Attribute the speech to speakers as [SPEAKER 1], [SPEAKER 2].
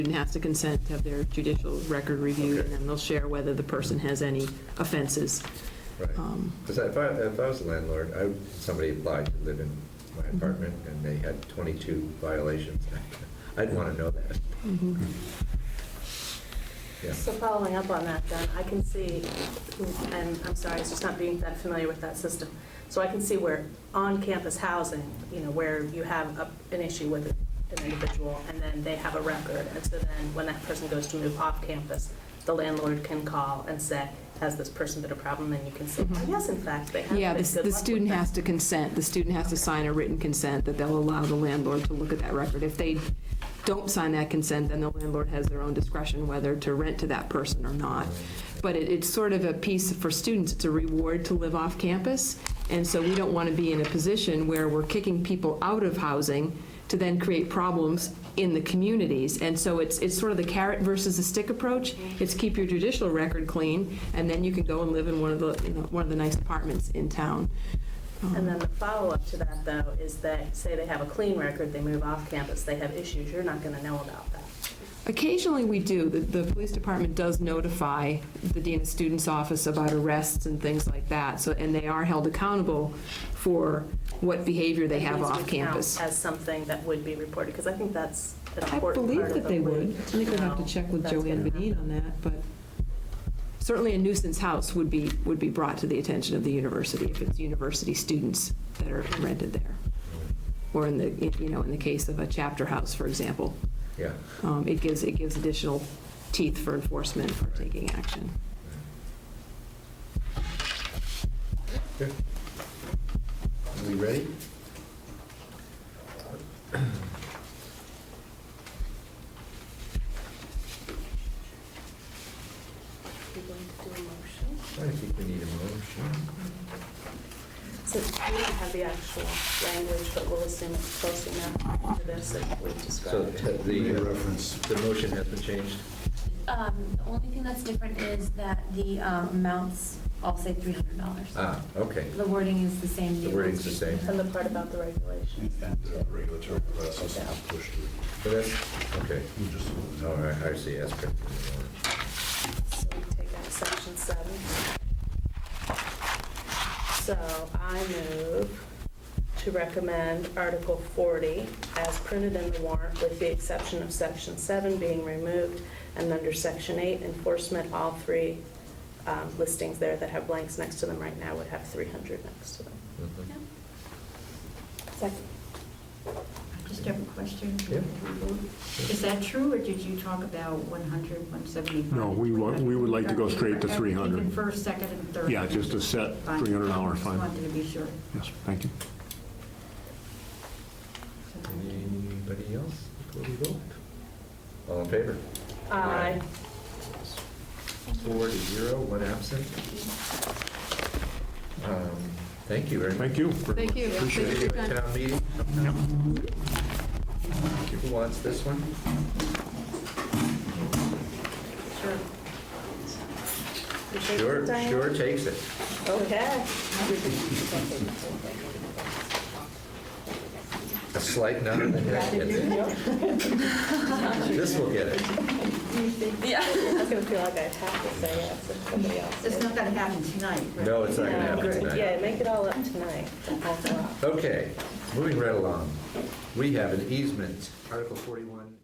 [SPEAKER 1] student has to consent to have their judicial record reviewed,
[SPEAKER 2] Okay.
[SPEAKER 1] and then they'll share whether the person has any offenses.
[SPEAKER 2] Right.
[SPEAKER 1] Um,
[SPEAKER 2] Because if I, if I was a landlord, I, would- somebody applied to live in my apartment and they had 22 violations, I'd want to know that. Yeah.
[SPEAKER 3] So following up on that, then, I can see, and I'm sorry, it's just not being that familiar with that system. So I can see where on-campus housing, you know, where you have a- an issue with an individual, and then they have a record, and so then when that person goes to move off-campus, the landlord can call and say, has this person been a problem? And you can say, "Oh, yes, in fact, they have.
[SPEAKER 1] Mm-hmm. Yeah,
[SPEAKER 3] been.
[SPEAKER 1] the
[SPEAKER 3] Good
[SPEAKER 1] the
[SPEAKER 3] luck with
[SPEAKER 1] student
[SPEAKER 3] that."
[SPEAKER 1] has to consent, the student has to sign a written consent that they'll allow the landlord to look at that record. If they don't sign that consent, then the landlord has their own discretion whether to rent to that person or not. But it, it's sort of a piece for students, it's a reward to live off campus, and so we don't want to be in a position where we're kicking people out of housing to then create problems in the communities. And so it's, it's sort of the carrot versus the stick approach. It's keep your judicial record clean, and then you can go and live in one of the, you know, one of the nice apartments in town. uh-huh.
[SPEAKER 3] And then the follow-up to that, though, is that, say they have a clean record, they move off-campus, they have issues, you're not going to know about that.
[SPEAKER 1] Occasionally, we do. The, the police department does notify the dean of students' office about arrests and things like that, so, and they are held accountable for what behavior they have
[SPEAKER 3] Please do
[SPEAKER 1] off
[SPEAKER 3] count
[SPEAKER 1] campus.
[SPEAKER 3] As something that would be reported, because I think that's an
[SPEAKER 1] I
[SPEAKER 3] important
[SPEAKER 1] believe
[SPEAKER 3] part of
[SPEAKER 1] that
[SPEAKER 3] the
[SPEAKER 1] they would.
[SPEAKER 3] league.
[SPEAKER 1] I think we'd have to
[SPEAKER 3] No,
[SPEAKER 1] check with
[SPEAKER 3] that's
[SPEAKER 1] Joanne
[SPEAKER 3] gonna
[SPEAKER 1] Benine on
[SPEAKER 3] happen.
[SPEAKER 1] that, but certainly a nuisance house would be, would be brought to the attention of the university if it's university students that are rented there. Or in the, you know, in the case of a chapter house, for example,
[SPEAKER 2] Yeah.
[SPEAKER 1] um, it gives, it gives additional teeth for enforcement for taking action.
[SPEAKER 2] Okay. Are we ready?
[SPEAKER 3] We're going to do a motion.
[SPEAKER 2] I think we need a motion.
[SPEAKER 3] So we don't have the actual language, but we'll assume it's close enough to this that we
[SPEAKER 2] So uh,
[SPEAKER 3] described.
[SPEAKER 2] the,
[SPEAKER 4] Read
[SPEAKER 2] the,
[SPEAKER 4] reference.
[SPEAKER 2] the motion has been changed.
[SPEAKER 5] Um, The only thing that's different is that the um, amounts all say $300.
[SPEAKER 2] Ah, okay.
[SPEAKER 5] The wording is the same.
[SPEAKER 2] The wording's the same.
[SPEAKER 3] And the part about the regulations.
[SPEAKER 4] And the regulatory process is pushed through.
[SPEAKER 2] So that's, okay.
[SPEAKER 4] We just-
[SPEAKER 2] All right, I see, that's good.
[SPEAKER 3] So we take out section seven. So I move to recommend Article 40 as printed in the warrant with the exception of section seven being removed and under section eight enforcement, all three um, listings there that have blanks next to them right now would have 300 next to them.
[SPEAKER 2] Mhm.
[SPEAKER 3] Second.
[SPEAKER 6] I just have a question.
[SPEAKER 2] Yeah.
[SPEAKER 6] Is that true, or did you talk about 100, 175?
[SPEAKER 7] No, we wa- we would like to go straight to 300.
[SPEAKER 6] Even first, second, and third?
[SPEAKER 7] Yeah, just a set
[SPEAKER 6] Fine.
[SPEAKER 7] $300
[SPEAKER 6] Just
[SPEAKER 7] fine.
[SPEAKER 6] wanted to be sure.
[SPEAKER 7] Yes, thank you.
[SPEAKER 2] Anybody else before we vote? All in favor?
[SPEAKER 3] Aye.
[SPEAKER 2] Four to zero, one absent. Um, Thank you very much.
[SPEAKER 7] Thank you. for-
[SPEAKER 1] Thank you.
[SPEAKER 7] Appreciate it.
[SPEAKER 2] Thank you. Town meeting? Who wants this one?
[SPEAKER 3] Sure. You take it,
[SPEAKER 2] Sure,
[SPEAKER 3] Diane?
[SPEAKER 2] sure takes it.
[SPEAKER 3] Okay.
[SPEAKER 2] A slight nod of the head gets it. This will get it.
[SPEAKER 3] I was going to feel like I have to say yes if somebody else
[SPEAKER 6] It's
[SPEAKER 3] did.
[SPEAKER 6] not going to happen tonight, right?
[SPEAKER 2] No, it's not going to happen
[SPEAKER 6] Good.
[SPEAKER 2] tonight.
[SPEAKER 3] Yeah, make it all up tonight.
[SPEAKER 2] Okay, moving right along. We have an easement, Article 41,